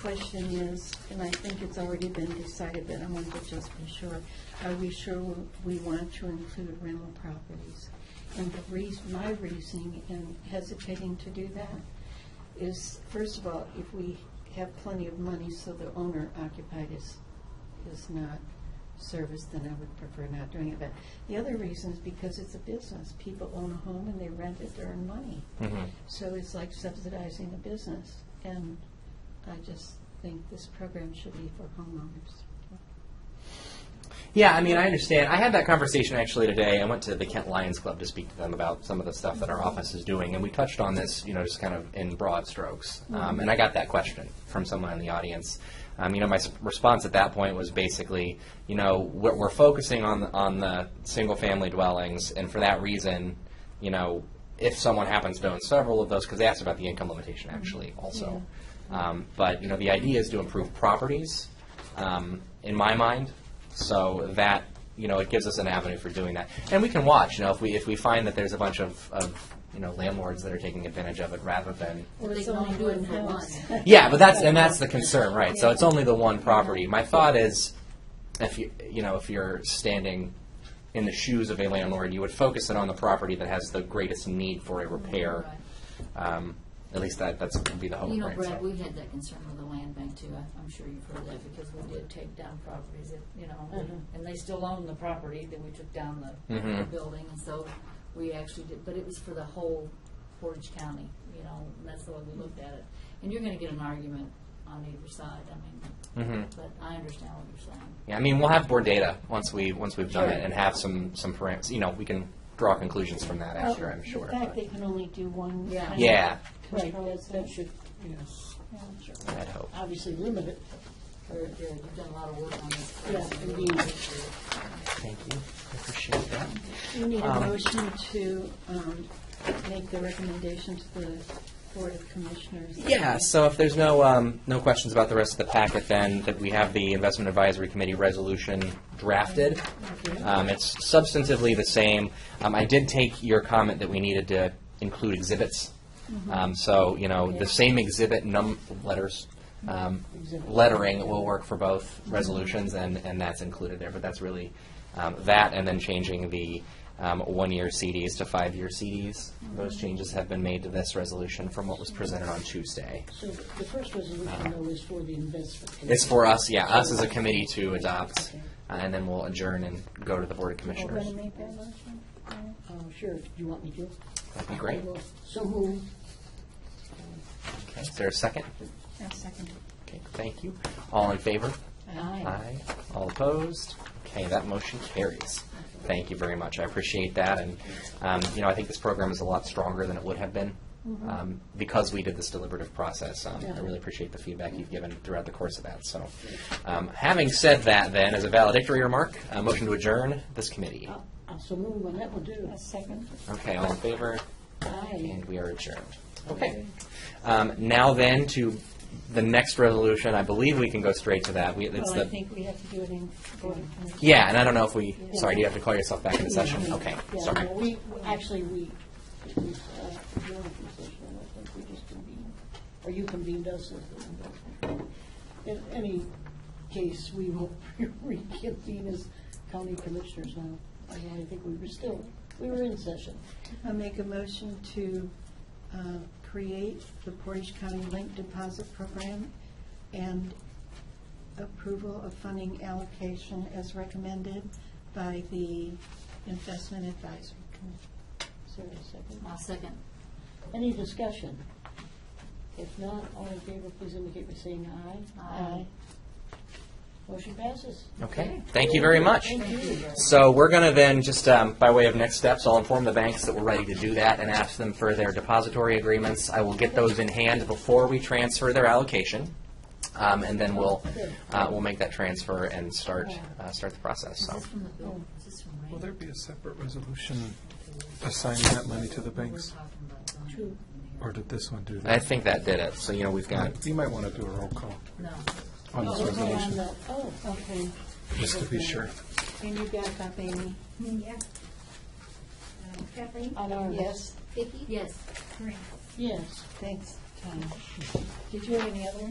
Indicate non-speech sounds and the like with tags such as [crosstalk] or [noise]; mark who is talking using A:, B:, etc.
A: question is, and I think it's already been decided, but I want to just be sure, are we sure we want to include rental properties? And the reason, my reasoning in hesitating to do that is, first of all, if we have plenty of money so the owner occupied is, is not serviced, then I would prefer not doing it. But the other reason is because it's a business. People own a home and they rent it to earn money.
B: Mhm.
A: So it's like subsidizing a business, and I just think this program should be for homeowners.
B: Yeah, I mean, I understand. I had that conversation actually today. I went to the Kent Lions Club to speak to them about some of the stuff that our office is doing, and we touched on this, you know, just kind of in broad strokes. Um, and I got that question from someone in the audience. Um, you know, my s- response at that point was basically, you know, we're, we're focusing on the, on the single-family dwellings, and for that reason, you know, if someone happens to own several of those, because they asked about the income limitation actually also. Um, but you know, the idea is to improve properties. Um, in my mind, so that, you know, it gives us an avenue for doing that. And we can watch, you know, if we, if we find that there's a bunch of, of, you know, landlords that are taking advantage of it rather than,
A: Or
C: they can only do it
A: [laughs]
C: for one.
B: yeah, but that's, and that's the concern, right? So it's only the one property. My thought is, if you, you know, if you're standing in the shoes of a landlord, you would focus it on the property that has the greatest need for a repair. Um, at least that, that's, would be the hope,
C: You know,
B: right?
C: Brad,
B: So-
C: we've had that concern with the land bank too. I- I'm sure you've heard that because we did take down properties that, you know,
D: Mm-hmm.
C: and they still own the property that we took down the- the
B: Mhm.
C: building. And so we actually did, but it was for the whole Portage County, you know, and that's the way we looked at it. And you're going to get an argument on either side, I mean,
B: Mhm.
C: but I understand what you're saying.
B: Yeah, I mean, we'll have more data once we, once we've done
C: Sure.
B: it and have some, some parameters, you know, we can draw conclusions from that
A: Oh,
B: after, I'm sure.
A: In fact,
B: but-
A: they can only do one.
C: Yeah.
A: kind of
B: Yeah,
D: Right,
A: control.
D: that, that should, you know,
A: Yeah.
B: I'd hope.
D: obviously limit it.
C: You're- you're- You've done a lot of work on this.
D: Yeah, indeed.
B: Thank you. I appreciate that.
A: We need a
B: Um,
A: motion to um, make the recommendation to the Board of Commissioners.
B: Yeah, so if there's no, um, no questions about the rest of the packet, then that we have the Investment Advisory Committee resolution drafted. Um, it's substantively the same. Um, I did take your comment that we needed to include exhibits. Um, so, you know, the same exhibit num, letters, um, lettering will work for both resolutions, and, and that's included there. But that's really, um, that and then changing the, um, one-year CDs to five-year CDs. Those changes have been made to this resolution from what was presented on Tuesday.
D: So the the first resolution though is for the investment.
B: It's for us, yeah, us as a committee to adopt, uh, and then we'll adjourn and go to the Board of
A: We're
B: Commissioners.
A: going to make that motion? All
D: Uh, Sure, do you want me to?
B: That'd be great.
D: I will. So moved.
B: Okay, Is there a second?
A: right, I'll second it.
B: Okay, thank you. All in favor?
C: Aye.
B: Aye. All opposed? Okay, that motion carries. Thank you very much. I appreciate that, and, um, you know, I think this program is a lot stronger than it would have been um, because we did this deliberative process. Um, I really appreciate the feedback you've given throughout the course of that, so. um, Having said that, then, as a valedictory remark, a motion to adjourn this committee.
D: I'll- I'll uh, so move on that one too.
A: A second.
B: Okay, all in favor?
D: Aye.
B: And we are adjourned. Okay. Um, Now then, to the next resolution, I believe we can go straight to that. We- It's
A: Well, I
B: the
A: think we have to do it in Board of Commissioners.
B: Yeah, and I don't know if we, sorry, do you have to call yourself back into session?
D: Yeah.
B: Okay,
D: Yeah,
B: sorry.
D: no, we, we- actually, we, we, uh, we don't have a session, I think we just convened, or you convened us. as the- In any case, [laughs] we will reconvene as county commissioners now. I really think we were still, we were in session.
A: I make a motion to uh, create the Portage County Link Deposit Program and approval of funding allocation as recommended by the Investment Advisory Committee.
D: Is there a second?
C: I'll second.
D: Any discussion? If not, all in favor, please indicate by saying aye.
C: Aye.
D: Motion passes.
B: Okay, thank you very much.
D: Thank you.
B: So we're going to then, just um, by way of next steps, I'll inform the banks that we're ready to do that and ask them for their depository agreements. I will get those in hand before we transfer their allocation, um, and then we'll, uh, we'll make that transfer and start, uh, start the process,
C: Is
B: so.
C: this from the bill? Is this from Ray?
E: Will there be a separate resolution assigning that money to the banks,
D: True.
E: or did this one do
B: I
E: that?
B: think uh, that did it, so, you know, we've got,
E: You might want to do a roll call
C: No.
E: on this
D: Oh, we're on
E: resolution,
D: the- Oh,
A: Okay,
E: just to be sure.
A: and you back up, Amy?
F: Yeah. Uh, Kathleen?
D: on our,
A: Yes,
F: Vicki?
C: Yes.
F: Corinne?
D: yes.
A: thanks, Tom. Did you have any other?